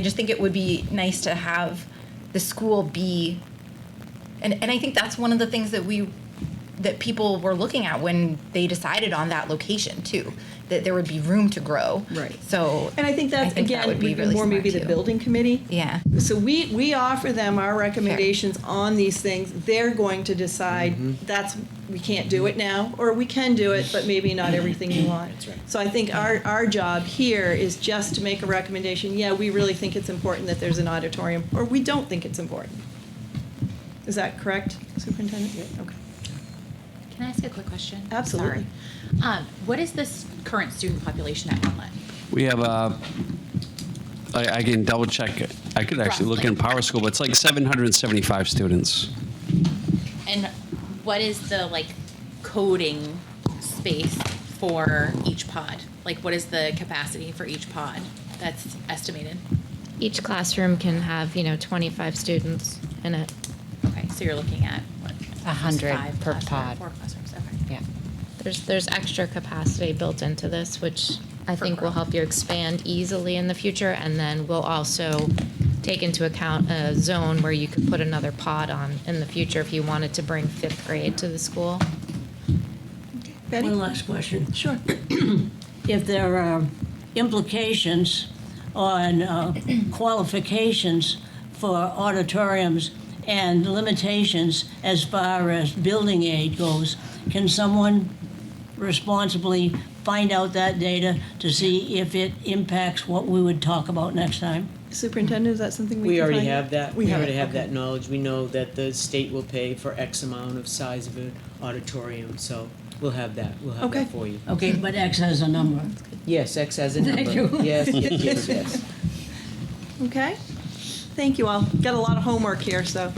I just think it would be nice to have the school be, and, and I think that's one of the things that we, that people were looking at when they decided on that location too, that there would be room to grow. Right. So. And I think that's, that again, would be even really more maybe smart, the too. building committee. Yeah. So we, we offer them our recommendations on these things. They're going to decide, Mm-hmm. that's, we can't do it now, or we can do it, but maybe not everything you want. That's right. So I think our, our job here is just to make a recommendation, yeah, we really think it's important that there's an auditorium, or we don't think it's important. Is that correct, Superintendent? Okay. Can I ask a quick question? Absolutely. Sorry. Um, what is this current student population at Inlet? We have a, I, I can double check, it. I could actually look in Power School, but it's like 775 students. And what is the like coding space for each pod? Like what is the capacity for each pod that's estimated? Each classroom can have, you know, 25 students in it. Okay, so you're looking at what? A hundred five per classroom- pod. Four classrooms, okay. Yeah. There's, there's extra capacity built into this, which I For think will growth. help you expand easily in the future. And then we'll also take into account a zone where you could put another pod on in the future if you wanted to bring fifth grade to the school. Betty? One last question. Sure. If there are uh, implications on uh, qualifications for auditoriums and limitations as far as building aid goes, can someone responsibly find out that data to see if it impacts what we would talk about next time? Superintendent, is that something we We can already find out? have that, We we have already it, have okay. that knowledge, we know that the state will pay for X amount of size of an auditorium, so we'll have that, we'll have Okay. that for you. Okay, but X has a number. Yes, X has a number. Thank you. Yes, yes, yes, yes. Okay. Thank you all. Got a lot of homework here, so